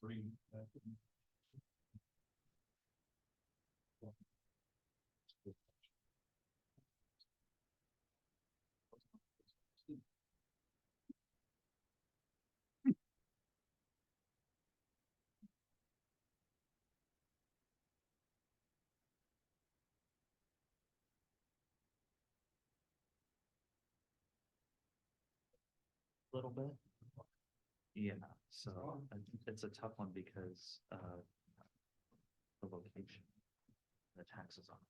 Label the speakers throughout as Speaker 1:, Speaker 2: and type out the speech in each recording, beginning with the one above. Speaker 1: Three.
Speaker 2: uh, little bit. Yeah, so I think it's a tough one because uh the location, the taxes on it.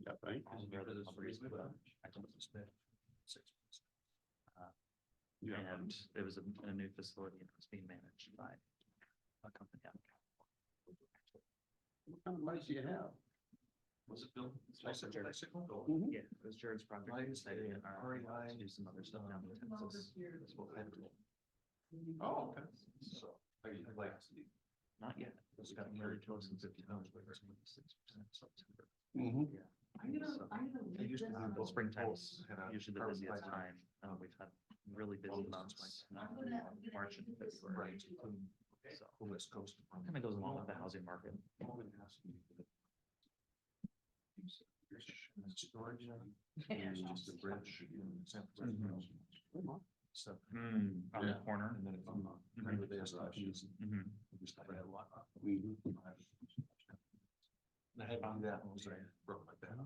Speaker 1: Yeah, right.
Speaker 2: Is there this reason about- I don't suspect.
Speaker 1: Yeah.
Speaker 2: And it was a, a new facility and it was being managed by a company. out of California.
Speaker 1: What kind of money do you have?
Speaker 2: Was it built? Bicycle?
Speaker 1: Mhm.
Speaker 2: Yeah, it was Jared's project.
Speaker 1: Lights,
Speaker 2: They did, uh,
Speaker 1: uh, REI.
Speaker 2: Do some other stuff down in Texas. That's what I heard.
Speaker 1: Oh, okay. So, I mean, like,
Speaker 2: Not yet. It's
Speaker 1: It's
Speaker 2: got
Speaker 1: got
Speaker 2: married
Speaker 1: carried
Speaker 2: to us in
Speaker 1: towards
Speaker 2: fifty
Speaker 1: the
Speaker 2: dollars, but it's twenty-six percent September.
Speaker 1: mhm.
Speaker 2: Yeah.
Speaker 3: I'm gonna, I'm gonna
Speaker 2: They
Speaker 3: leave
Speaker 2: usually
Speaker 3: this
Speaker 2: do
Speaker 3: on.
Speaker 2: both springtime, is
Speaker 1: had a
Speaker 2: usually the
Speaker 1: carbon
Speaker 2: busiest
Speaker 1: fiber.
Speaker 2: time. Uh, we've had really busy
Speaker 1: Well,
Speaker 2: months, not
Speaker 3: I'm gonna- I'm gonna
Speaker 2: March and
Speaker 3: leave this on
Speaker 2: February.
Speaker 3: YouTube.
Speaker 1: Um,
Speaker 2: So
Speaker 1: the West Coast.
Speaker 2: kind of goes along with the housing market.
Speaker 1: More than half of you. And it's Storage. uh, and it's just a bridge, you know, it's a bridge. So,
Speaker 2: Mm-hmm.
Speaker 3: Hmm,
Speaker 2: On the
Speaker 1: Yeah.
Speaker 2: corner.
Speaker 1: and then if I'm not,
Speaker 2: Mhm.
Speaker 1: remember there's a piece,
Speaker 2: Mhm.
Speaker 1: just I had a lot. of- And I had on that, one, so I broke my back.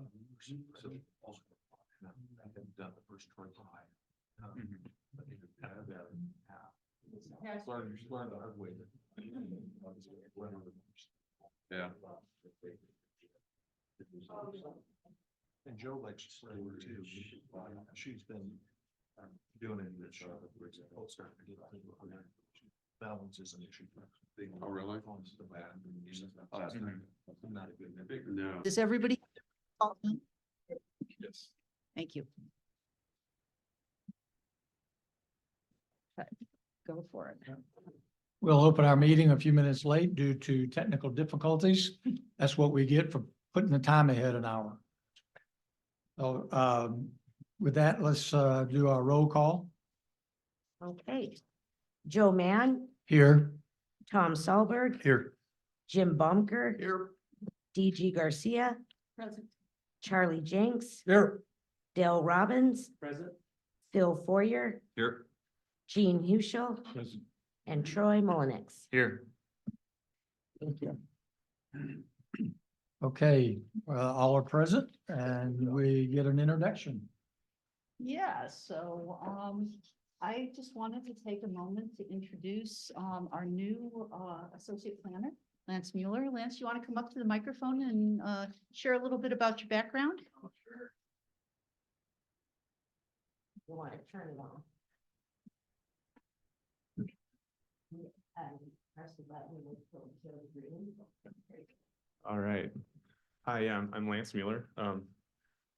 Speaker 1: So also, and I had done the first twenty five. um,
Speaker 2: Mhm.
Speaker 1: but they did that about half.
Speaker 3: Yes.
Speaker 1: Learned, you learn the hard way. that- obviously, I learned the most.
Speaker 4: Yeah.
Speaker 1: And Joe likes to play with too. She's been um, doing it in the shop. Balance is an issue.
Speaker 4: Oh, really?
Speaker 1: Phones are bad.
Speaker 4: Oh, that's
Speaker 2: Mhm.
Speaker 1: Not a good, they're big.
Speaker 4: No.
Speaker 3: Does everybody?
Speaker 4: Yes.
Speaker 3: Thank you. Okay, Go for it.
Speaker 5: We'll open our meeting a few minutes late due to technical difficulties. That's what we get for putting the time ahead an hour. So um, with that, let's uh, do our roll call
Speaker 6: Okay. Joe Mann,
Speaker 5: here.
Speaker 6: Tom Solberg,
Speaker 5: Here.
Speaker 6: Jim Bumker,
Speaker 5: Here.
Speaker 6: DG Garcia,
Speaker 3: Present.
Speaker 6: Charlie Jenks,
Speaker 5: Here.
Speaker 6: Dale Robbins,
Speaker 2: Present.
Speaker 6: Phil Foyer,
Speaker 4: Here.
Speaker 6: Gene Hushel, and Troy Mullenix.
Speaker 2: Here.
Speaker 5: Thank you. Okay, uh, all are present and we get an introduction.
Speaker 3: Yeah, so um, I just wanted to take a moment to introduce um, our new uh, associate planner, Lance Mueller. Lance, you want to come up to the microphone and uh, share a little bit about your background?
Speaker 6: Oh, You want to turn it on? Um, press the button until Joe's green.
Speaker 7: All right. Hi, um, I'm Lance Mueller. Um,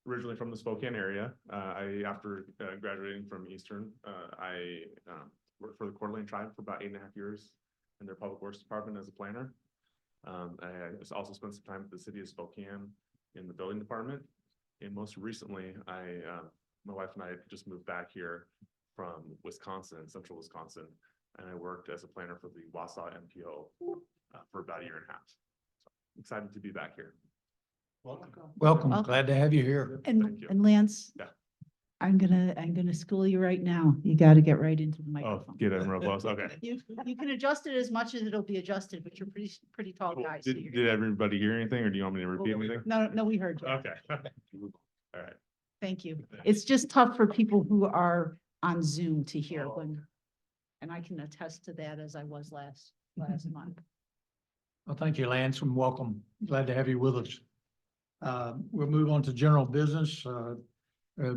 Speaker 7: originally from the Spokane area. Uh, I, after uh, graduating from Eastern, uh, I, um, worked for the Coeur d'Alene tribe for about eight and a half years in their public works department as a planner. Um, I just also spent some time at the city of Spokane in the building department. And most recently, I, uh, my wife and I just moved back here from Wisconsin, central Wisconsin. And I worked as a planner for the Wausau MPO uh, for about a year and a half excited to be back here.
Speaker 1: Welcome.
Speaker 5: Welcome.
Speaker 3: Welcome.
Speaker 5: Glad to have you here.
Speaker 7: Thank
Speaker 3: And,
Speaker 7: you.
Speaker 3: and Lance?
Speaker 7: Yeah.
Speaker 3: I'm gonna, I'm gonna school you right now. You gotta get right into the
Speaker 7: Oh,
Speaker 3: microphone.
Speaker 7: get in real close. Okay.
Speaker 3: You, you can adjust it as much as it'll be adjusted, but you're pretty, pretty tall
Speaker 7: Cool.
Speaker 3: guy. so
Speaker 7: Oh, Did,
Speaker 3: you're-
Speaker 7: did everybody hear anything or do you want me to repeat anything?
Speaker 3: No, no, we heard. you.
Speaker 7: Okay. All right.
Speaker 3: Thank you. It's just tough for people who are on Zoom to hear
Speaker 7: Oh.
Speaker 3: when, and I can attest to that as I was last, last month.
Speaker 5: Well, thank you, Lance, and welcome. Glad to have you with us. Uh, We'll move on to general business. Uh, uh,